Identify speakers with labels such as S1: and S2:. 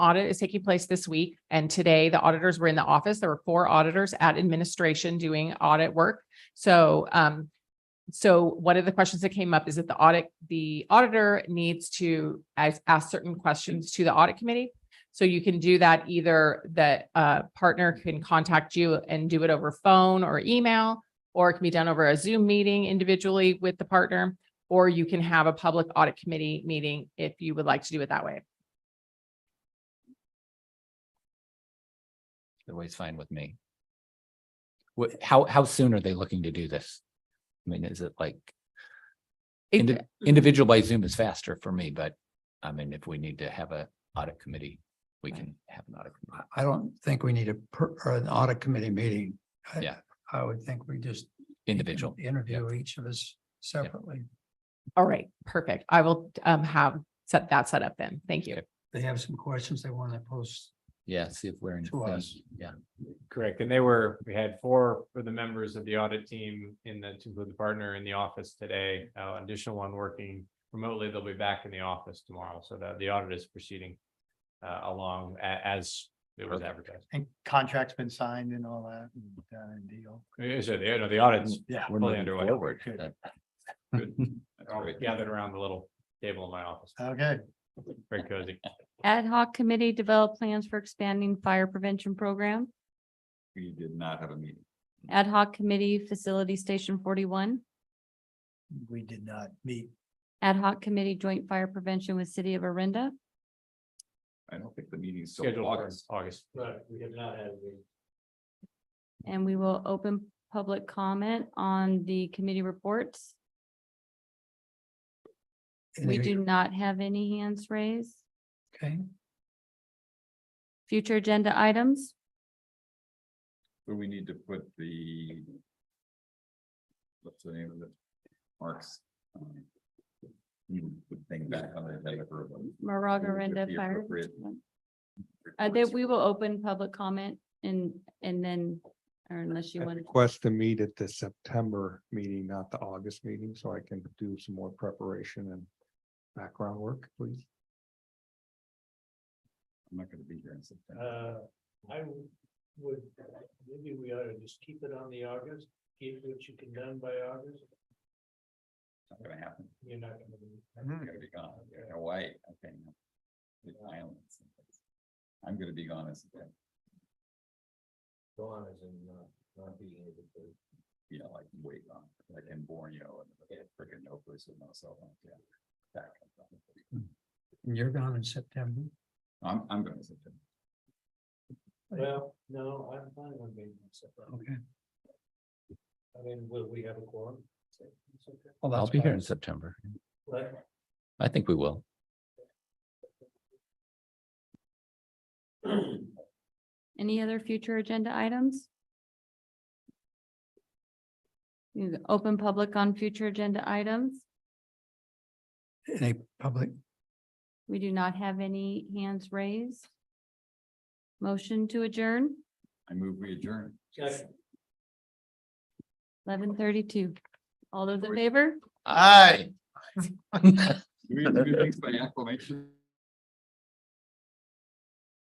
S1: audit is taking place this week. And today the auditors were in the office. There were four auditors at administration doing audit work. So, um, so one of the questions that came up is that the audit, the auditor needs to ask, ask certain questions to the audit committee. So you can do that either that, uh, partner can contact you and do it over phone or email, or it can be done over a Zoom meeting individually with the partner, or you can have a public audit committee meeting if you would like to do it that way.
S2: Always fine with me. What, how, how soon are they looking to do this? I mean, is it like
S1: It-
S2: indi-
S3: Mm-hmm.
S2: individual by Zoom is faster for me, but I mean, if we need to have a audit committee, we can have an audit. committee.
S3: I- I don't think we need a, per- or an audit committee meeting. I-
S2: Yeah.
S3: I would think we just.
S2: Individual.
S3: Interview each of us separately.
S1: All right, perfect. I will um have set that set up then. Thank you.
S2: Okay.
S3: They have some questions they want to post.
S2: Yeah, see if we're in.
S3: To us.
S2: Yeah,
S4: Correct, and they were, we had four of the members of the audit team in the, to include the partner in the office today. Uh, additional one working remotely, they'll be back in the office tomorrow, so that the audit is proceeding uh, along a- as it was advertised.
S5: And contract's been signed and all that and uh, deal.
S4: Yeah, So the, no, the audit's
S5: Yeah.
S2: Mm, we're
S4: Fully
S2: moving
S4: underway.
S2: forward.
S5: Good.
S2: Uh,
S4: all
S2: great. Uh,
S4: gathered around the little table in my office,
S5: Okay,
S4: very cozy.
S6: Ad hoc committee develop plans for expanding fire prevention program.
S7: We did not have a meeting.
S6: Ad hoc committee facility station forty-one.
S5: we did not meet.
S6: Ad hoc committee joint fire prevention with city of Arinda.
S7: I don't think the meeting's still
S4: Scheduled for
S7: August.
S4: August.
S5: But we have not had.
S6: And we will open public comment on the committee reports. We do not have any hands raised.
S3: Okay,
S6: Future agenda items.
S7: So we need to put the. What's the name of it? Marks. um, Put thing back on the agenda for. a vote.
S6: Moraga
S7: Would it
S6: Arinda
S7: be
S6: Fire.
S7: appropriate?
S6: Uh, that we will open public comment and, and then, or unless you
S8: I'd
S6: want to.
S8: Request to meet at the September meeting, not the August meeting, so I can do some more preparation and background work, please.
S7: I'm not gonna be here in September.
S9: Uh, I would, maybe we ought to just keep it on the August, get what you can done by August,
S7: It's not gonna happen.
S9: you're not gonna be.
S7: I'm gonna be gone. I'm gonna Hawaii, okay. no. The islands. I'm gonna be gone in September.
S9: Gone as in not, not being able to.
S7: you know, like way gone, like in Borneo and freaking no place with no cell phone, yeah. That kind of thing.
S3: and you're gone in September.
S7: I'm, I'm going to September.
S9: Well, no, I'm fine on being myself.
S3: Okay.
S9: I mean, will we have a quorum? It's okay.
S3: Well,
S2: I'll
S3: that's
S2: be here
S3: fine.
S2: in September.
S9: But
S2: I think we will.
S6: Any other future agenda items? You can Open public on future agenda items.
S3: Any public,
S6: We do not have any hands raised. Motion to adjourn,
S7: I move we adjourn.
S9: Jack,
S6: eleven thirty-two. All those in favor?
S2: Aye.
S7: Do we have to do things by acclamation?